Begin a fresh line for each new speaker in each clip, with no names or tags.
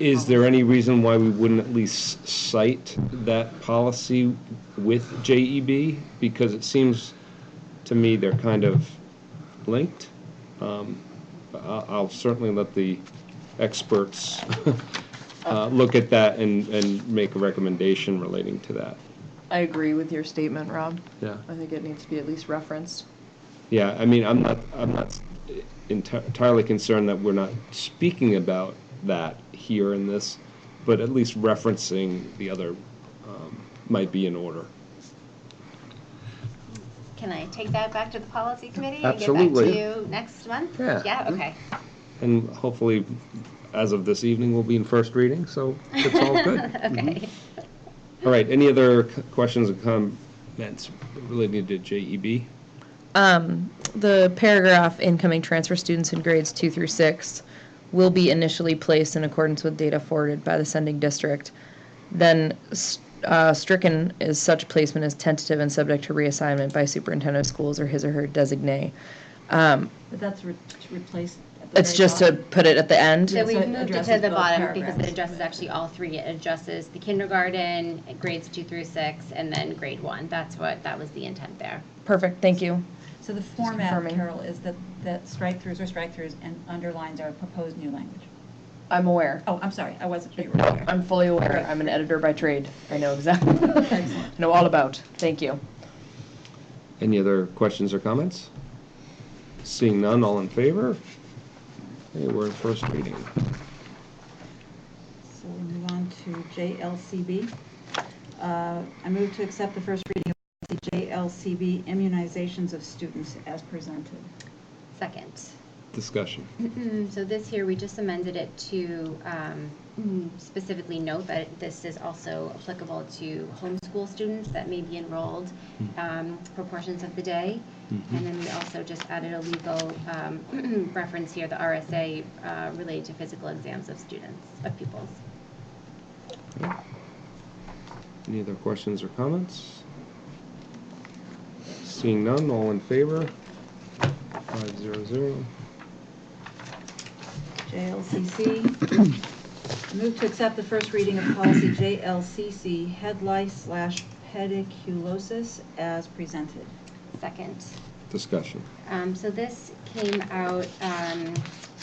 Is there any reason why we wouldn't at least cite that policy with JEB? Because it seems to me they're kind of linked. Um, I- I'll certainly let the experts uh, look at that and, and make a recommendation relating to that.
I agree with your statement, Rob.
Yeah.
I think it needs to be at least referenced.
Yeah, I mean, I'm not, I'm not enti- entirely concerned that we're not speaking about that here in this, but at least referencing the other um, might be in order.
Can I take that back to the policy committee? And
Absolutely.
get back to you next month?
mm,
Yeah.
Yeah, okay.
And hopefully, as of this evening, we'll be in first reading, so it's all good. Mm-hmm.
Okay.
All right, any other c- questions and comments related to E JEB?
Um, the paragraph, incoming transfer students in grades two through six will be initially placed in accordance with data forwarded by the sending district. Then, s- uh, stricken is such placement is tentative and subject to reassignment by superintendent of schools or his or her designee. Um,
But that's re- to replace. at the
it's
very
just to
bottom.
put it at the end.
So we
So it
moved it to
addresses
the
both
bottom because it
paragraphs.
addresses actually all three. It addresses the kindergarten, grades two through six, and then grade one. That's what, that was the intent there.
Perfect, thank you.
So the format,
confirming.
Carol, is that, that strike-throughs are strike-throughs and underlines are proposed new language.
I'm aware.
Oh, I'm sorry, I wasn't sure you were
No,
aware.
I'm fully aware. I'm an editor by trade. I know exactly, know all about. Thank you.
Any other questions or comments? Seeing none, all in favor? Hey, we're in first reading.
So we'll move on to JLCB. Uh, I move to accept the first reading of policy JLCB immunizations of students as presented.
Second.
Discussion.
Hmm, So this here, we just amended it to um, specifically note that this is also applicable to homeschool students that may be enrolled um, for portions of the day. And then we also just added a legal um, reference here, the RSA uh, related to physical exams of students, of pupils.
Any other questions or comments? Seeing none, all in favor? Five zero zero.
JLCC. I Move to accept the first reading of policy JLCC, head lice slash pediculosis as presented.
Second.
Discussion.
Um, So this came out, um,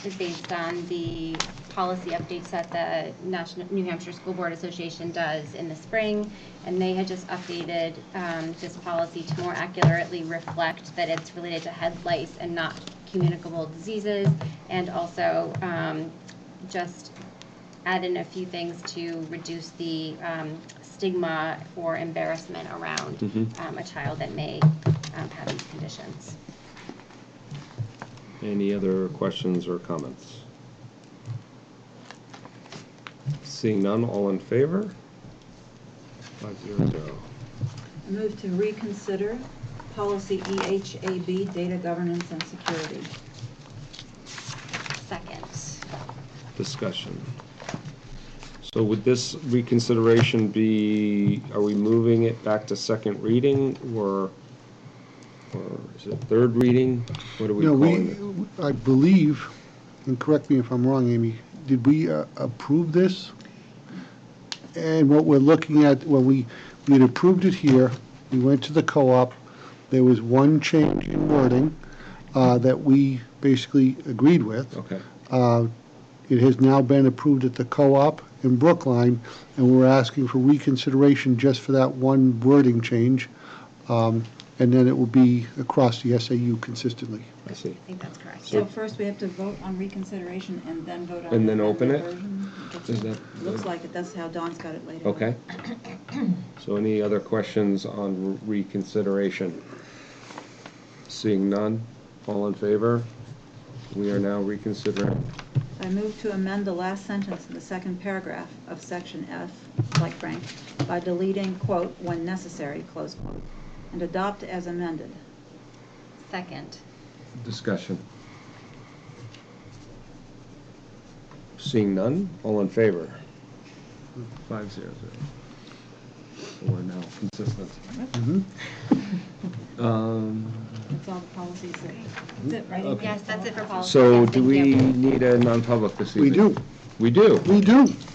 is based on the policy updates that the National, New Hampshire School Board Association does in the spring, and they had just updated um, this policy to more accurately reflect that it's related to head lice and not communicable diseases, and also um, just add in a few things to reduce the um, stigma or embarrassment around
Mhm.
um, a child that may um, have these conditions.
Any other questions or comments? Seeing none, all in favor? Five zero zero.
I Move to reconsider policy E EHAB, data governance and security.
Second.
Discussion. So would this reconsideration be, are we moving it back to second reading or, or is it third reading? What are we
No,
calling
we,
it?
I believe, and correct me if I'm wrong, Amy, did we uh, approve this? And what we're looking at, well, we, we had approved it here, we went to the co-op, there was one change in wording uh, that we basically agreed with.
Okay.
Uh, It has now been approved at the co-op in Brookline, and we're asking for reconsideration just for that one wording change. Um, And then it will be across the SAU consistently.
I see.
I think that's correct.
So first, we have to vote on reconsideration and then vote on.
And then open
the
it?
version. That's-
Is that-
Looks like it, that's how Dawn's got it laid out.
Okay. So any other questions on reconsideration? Seeing none, all in favor? We are now reconsidering.
I move to amend the last sentence in the second paragraph of section F, like Frank, by deleting, quote, "when necessary," close quote, and adopt as amended.
Second.
Discussion. Seeing none, all in favor? Five zero zero. So We're now consistent. Um,
That's all the policies that, that's it, right?
Yes, that's it for policy.
So
Yes,
do
thank
we
you.
need a non-public this evening?
We do.
We do.
We do.